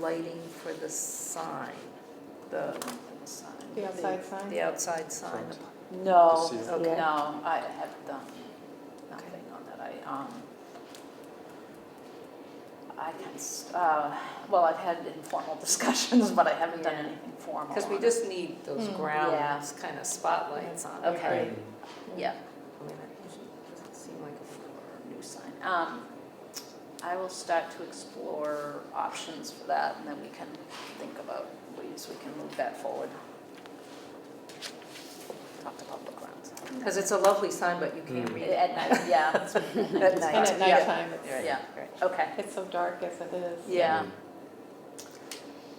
lighting for the sign, the, The outside sign? the outside sign. No, This year. Okay. no, I have done nothing on that. I, um, I can, s- uh, well, I've had informal discussions, but I haven't done Yeah. anything formal. Because we on it. just need those Mm. ground kind of spotlights on it. Hmm, Okay. right? Yeah, I mean, it doesn't seem like a new sign. Um, I will start to explore options for that, and then we can think about ways we can move that forward. Talk to public grounds. Because it's a lovely sign, but you can't Mm. read it. At night, yeah. that's- At night, And at yeah. nighttime, it's, Yeah, okay, it's so dark as it is. yeah.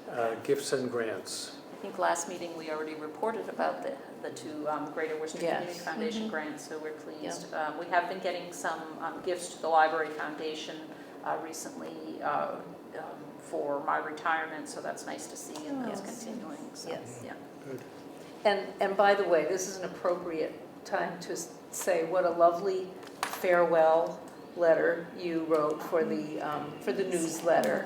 Mm. Uh, Gifts and grants. I think last meeting, we already reported about the, the two um, Greater Worcester Community Yes. Mm-hmm. Foundation Mhm. grants, so we're pleased. Um, We have been getting some um, gifts to the Library Foundation uh, recently uh, um, for my retirement, so that's nice to see, and that's Oh, Yes. continuing, so, Yes. yeah. Good. And, and by the way, this is an appropriate time to s- say what a lovely farewell letter you wrote for the, um, for the newsletter.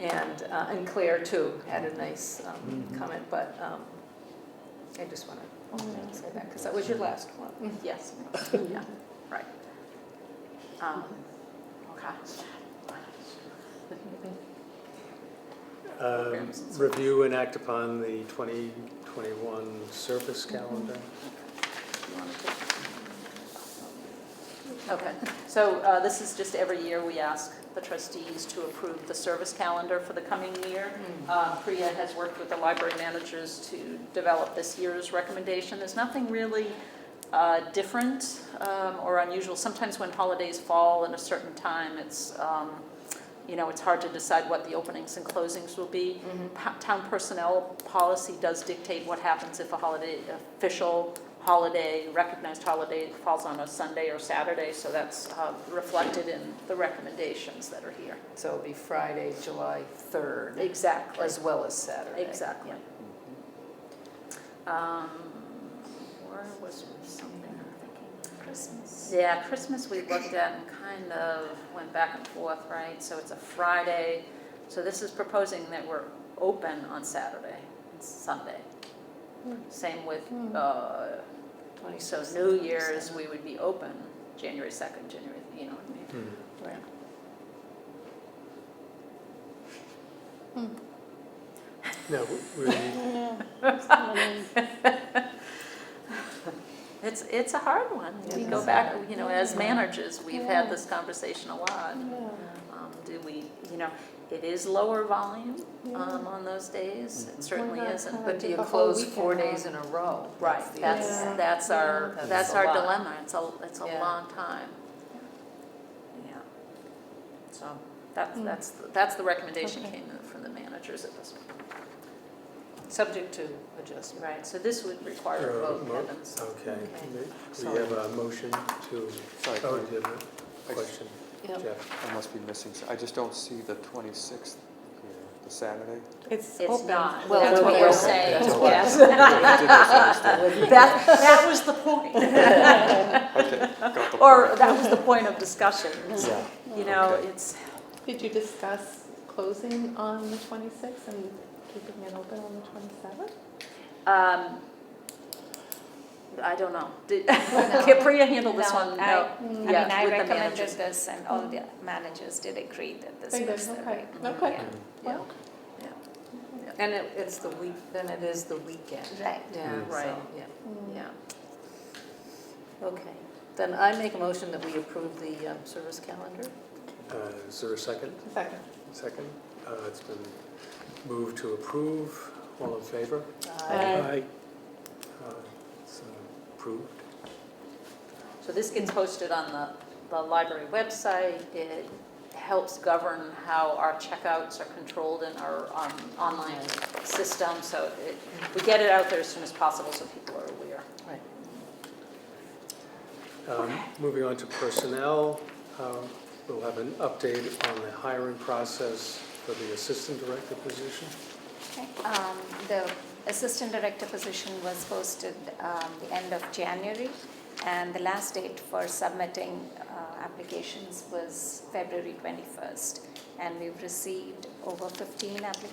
And, uh, and Claire too had a nice um, Mhm. comment, but um, I just want to say that because that was your last one. Yes, yeah, right. Um, Okay. Um, Review and act upon the 2021 service Mm-hmm. calendar. Okay, so uh, this is just every year we ask the trustees to approve the service calendar for the coming year. Mm-hmm. Uh, Priya has worked with the library managers to develop this year's recommendation. There's nothing really uh, different um, or unusual. Sometimes when holidays fall in a certain time, it's, um, you know, it's hard to decide what the openings and closings will be. Pa- Town personnel policy does dictate what happens if a holiday, official holiday, recognized holiday falls on a Sunday or Saturday, so that's uh, reflected in the recommendations that are here. So it'll be Friday, July 3rd, Exactly. as well as Saturday. Exactly. Um, Or was there something I'm thinking? Christmas. Yeah, Christmas we looked at and kind of went back and forth, right? So it's a Friday, so this is proposing that we're open on Saturday and Sunday. Hmm. Same with, Hmm. uh, so 26th, New Year's, 27th. we would be open January 2nd, January, you know what I mean? Hmm. Hmm. No, we need, It's, it's a hard one. We It go is. back, you know, as Yeah. managers, we've had Yeah. this conversation a lot. Uh, Yeah. Um, Do we, you know, it is lower volume Yeah. um, on those days, Mhm. it certainly Why not isn't. have But do you The whole close four weekend, days huh? in a row? Right, the that's, issue. Yeah. that's our, That's that's a our lot. dilemma, it's a, it's a Yeah. long time. Yeah. So, that's, Mm. that's, that's the recommendation Okay. came from the managers at this point. Subject to adjustment. Right, so this would require a Uh, vote, mo- Kevin, so- okay. Okay. We Sorry. have a motion to, Sorry, oh, do you have a I- question, Jeff? I must be missing, s- I just don't see the 26th here, the Saturday. It's It's open. not, Well, that's we're what we're open. saying, That's what- yes. I did misunderstand. That, that was the point. Okay, got the Or point. that was the point of discussion, Yeah, you know, Okay. it's, Did you discuss closing on the 26th and keeping it open on the 27th? um, I don't know. Did- Can Priya handle this No, one? I- No. I Mm. mean, Yeah, I with the recommended managers. this and all the managers did agree that this Very good, was the okay, right. okay. Yeah. Hmm. Well, And it, it's the week, then it is the weekend. Right. Yeah, Mm. right, Right. yeah. mm. Yeah. Okay, then I make a motion that we approve the um, service calendar. Uh, Is there a second? Mm. Second. Second? Uh, It's been moved to approve. All in favor? Aye. Uh, It's uh, approved. So this gets posted on the, the library website. It helps govern how our checkouts are controlled in our um, online system. So it, we get it out there as soon as possible so people are aware. Right. Um, Moving on to personnel, um, we'll have an update on the hiring process for the assistant director position. Okay. Um, The assistant director position was posted um, the end of January and the last date for submitting uh, applications was February 21st. And we've received over 15 applications